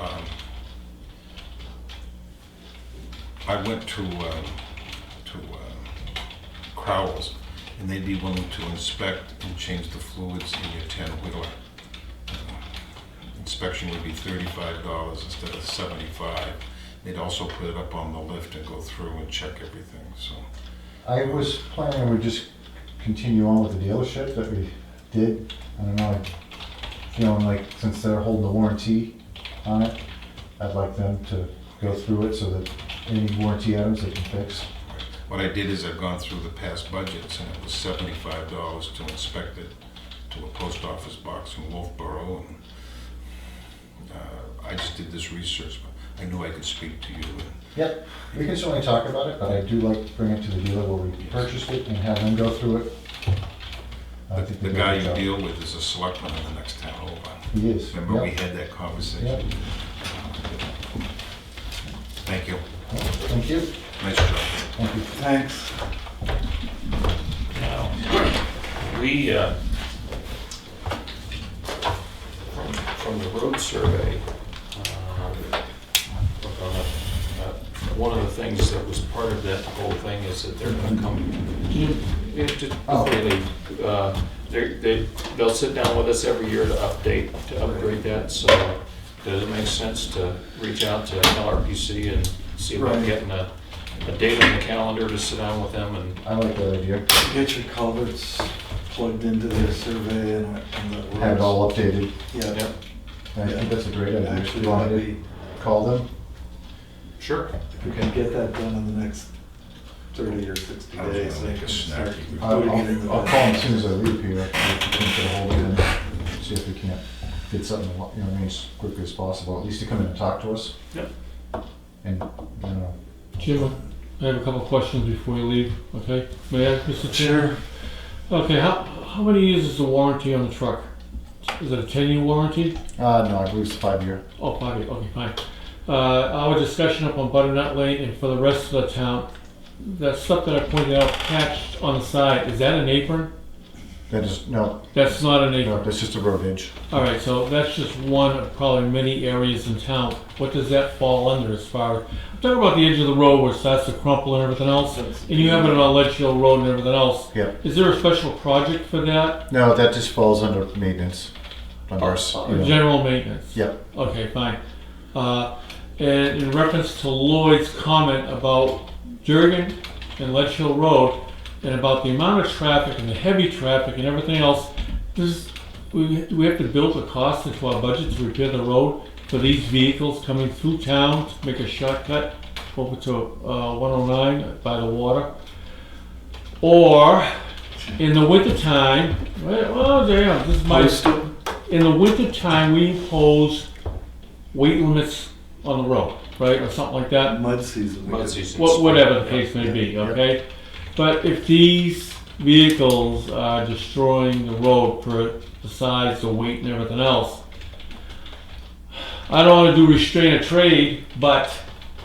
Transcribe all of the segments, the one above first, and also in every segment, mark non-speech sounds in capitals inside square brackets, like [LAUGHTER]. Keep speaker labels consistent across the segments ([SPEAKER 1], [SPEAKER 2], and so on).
[SPEAKER 1] um, I went to, um, to um, Crowell's, and they'd be willing to inspect and change the fluids in your 10-wheeler. Inspection would be $35 instead of 75. They'd also put it up on the lift and go through and check everything, so.
[SPEAKER 2] I was planning we just continue on with the dealership that we did. I don't know, feeling like since they're holding the warranty on it, I'd like them to go through it so that any warranty items they can fix.
[SPEAKER 1] What I did is I've gone through the past budgets, and it was seventy-five dollars to inspect it to a post office box in Wolfboro, and uh, I just did this research, but I knew I could speak to you, and
[SPEAKER 2] Yep, we can certainly talk about it, but I do like to bring it to the dealer where we purchased it and have them go through it. I think
[SPEAKER 1] the
[SPEAKER 2] they did
[SPEAKER 1] guy
[SPEAKER 2] a
[SPEAKER 1] you
[SPEAKER 2] good
[SPEAKER 1] deal with is a selectman in the next town over.
[SPEAKER 2] job. He is,
[SPEAKER 1] Remember, we
[SPEAKER 2] yep,
[SPEAKER 1] had that
[SPEAKER 2] yep.
[SPEAKER 1] conversation? Thank you.
[SPEAKER 2] Thank you,
[SPEAKER 1] Nice job.
[SPEAKER 2] thank you.
[SPEAKER 3] Thanks.
[SPEAKER 4] Now, we, uh, from, from the road survey, um, look on the- uh, one of the things that was part of that whole thing is that they're gonna come, Yeah, just
[SPEAKER 2] Oh.
[SPEAKER 4] before they leave, uh, they're, they, they'll sit down with us every year to update, to upgrade that, so does it make sense to reach out to LRPC and see about
[SPEAKER 3] Right.
[SPEAKER 4] getting a, a date on the calendar to sit down with them and
[SPEAKER 2] I like that idea,
[SPEAKER 3] Get your culverts plugged into their survey and and the roads.
[SPEAKER 2] have it all updated.
[SPEAKER 3] Yeah.
[SPEAKER 4] Yep,
[SPEAKER 2] I think that's a great idea.
[SPEAKER 3] Actually,
[SPEAKER 2] You want me to
[SPEAKER 3] that'd
[SPEAKER 2] call them?
[SPEAKER 4] sure.
[SPEAKER 3] If we can get that done in the next thirty or sixty
[SPEAKER 1] I was
[SPEAKER 3] days.
[SPEAKER 1] gonna
[SPEAKER 3] I
[SPEAKER 1] make a
[SPEAKER 3] can
[SPEAKER 1] snack.
[SPEAKER 3] start
[SPEAKER 2] I'll,
[SPEAKER 3] putting it in
[SPEAKER 2] I'll
[SPEAKER 3] the-
[SPEAKER 2] I'll call them as soon as I leave here, get a hold of them, see if we can't get something, you know, what I mean, as quickly as possible, at least to come in and talk to us.
[SPEAKER 4] Yep.
[SPEAKER 2] And, you know,
[SPEAKER 5] Jim, I have a couple of questions before you leave, okay? May I, ask, Mr. Chair? Okay, how, how many years is the warranty on the truck? Is it a ten-year warranty?
[SPEAKER 2] uh, no, I believe it's five year.
[SPEAKER 5] Oh, five year, okay, fine. Uh, our discussion up on Butternut Lane and for the rest of the town, that stuff that I pointed out patched on the side, is that an apron?
[SPEAKER 2] That is, no,
[SPEAKER 5] That's not an
[SPEAKER 2] no,
[SPEAKER 5] apron.
[SPEAKER 2] that's just a road edge.
[SPEAKER 5] All right, so that's just one of probably many areas in town. What does that fall under as far, as I'm talking about the edge of the road where it starts to crumple and everything else, and you have it on Ledge Hill Road and everything else.
[SPEAKER 2] Yeah,
[SPEAKER 5] Is there a special project for that?
[SPEAKER 2] no, that just falls under maintenance, under ours.
[SPEAKER 5] Or general maintenance?
[SPEAKER 2] Yeah,
[SPEAKER 5] Okay, fine. Uh, and in reference to Lloyd's comment about Jurgen and Ledge Hill Road and about the amount of traffic and the heavy traffic and everything else, does, we, do we have to build a cost into our budget to repair the road for these vehicles coming through town to make a shortcut over to, uh, one oh nine by the water? Or in the wintertime, well, well, damn, this is my. In the wintertime, we impose weight limits on the road, right, or something like that,
[SPEAKER 3] Mud season.
[SPEAKER 4] Mud season.
[SPEAKER 5] Wha- whatever the case may be, okay? But if these vehicles are destroying the road for, besides the weight and everything else, I don't wanna do restraint of trade, but,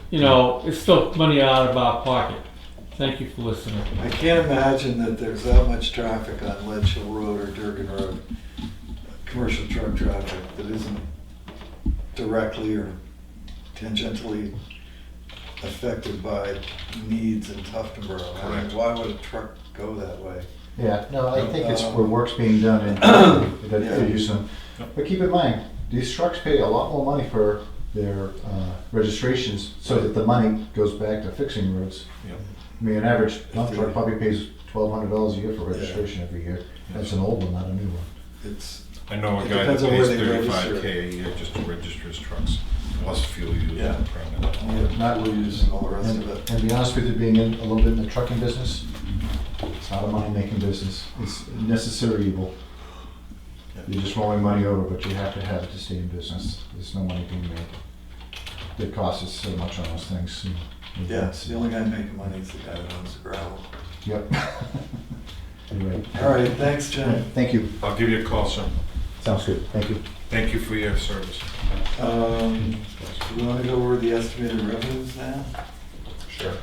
[SPEAKER 5] you know, it's still money out of our pocket. Thank you for listening.
[SPEAKER 3] I can't imagine that there's that much traffic on Ledge Hill Road or Durgan Road, commercial truck traffic, that isn't directly or tangentially affected by needs in Tuftonboro. I
[SPEAKER 1] Correct.
[SPEAKER 3] mean, why would a truck go that way?
[SPEAKER 2] yeah, no, I think uh, it's
[SPEAKER 3] Um,
[SPEAKER 2] where work's being done [COUGHS] and that
[SPEAKER 3] Yeah.
[SPEAKER 2] they're using them. But keep in mind, these trucks pay a lot more money for their uh, registrations, so that the money goes back to fixing roads.
[SPEAKER 1] Yep.
[SPEAKER 2] I mean, an average dump truck probably pays twelve hundred dollars a year for registration every year. That's an old one, not a new one.
[SPEAKER 3] It's,
[SPEAKER 1] I know a
[SPEAKER 3] It
[SPEAKER 1] guy that
[SPEAKER 3] depends on where
[SPEAKER 1] pays
[SPEAKER 3] they register.
[SPEAKER 1] thirty-five K a year just to register his trucks, plus fuel used
[SPEAKER 3] Yeah.
[SPEAKER 1] and permit.
[SPEAKER 3] not we're using all the rest
[SPEAKER 2] And,
[SPEAKER 3] of it.
[SPEAKER 2] and to be honest with you, being in a little bit in the trucking business, it's not a money-making business. It's a necessary evil. You're just rolling money over, but you have to have it to stay in business. There's no money being made. The cost is so much on those things. and-
[SPEAKER 3] Yeah, it's the only guy making money is the guy that owns the gravel.
[SPEAKER 2] Yep. [LAUGHS] You're right.
[SPEAKER 3] All right, thanks, Jim.
[SPEAKER 2] Thank you.
[SPEAKER 1] I'll give you a call soon.
[SPEAKER 2] Sounds good. Thank you.
[SPEAKER 1] Thank you for your service.
[SPEAKER 3] Um, do we want to go over the estimated revenues now?
[SPEAKER 4] Sure.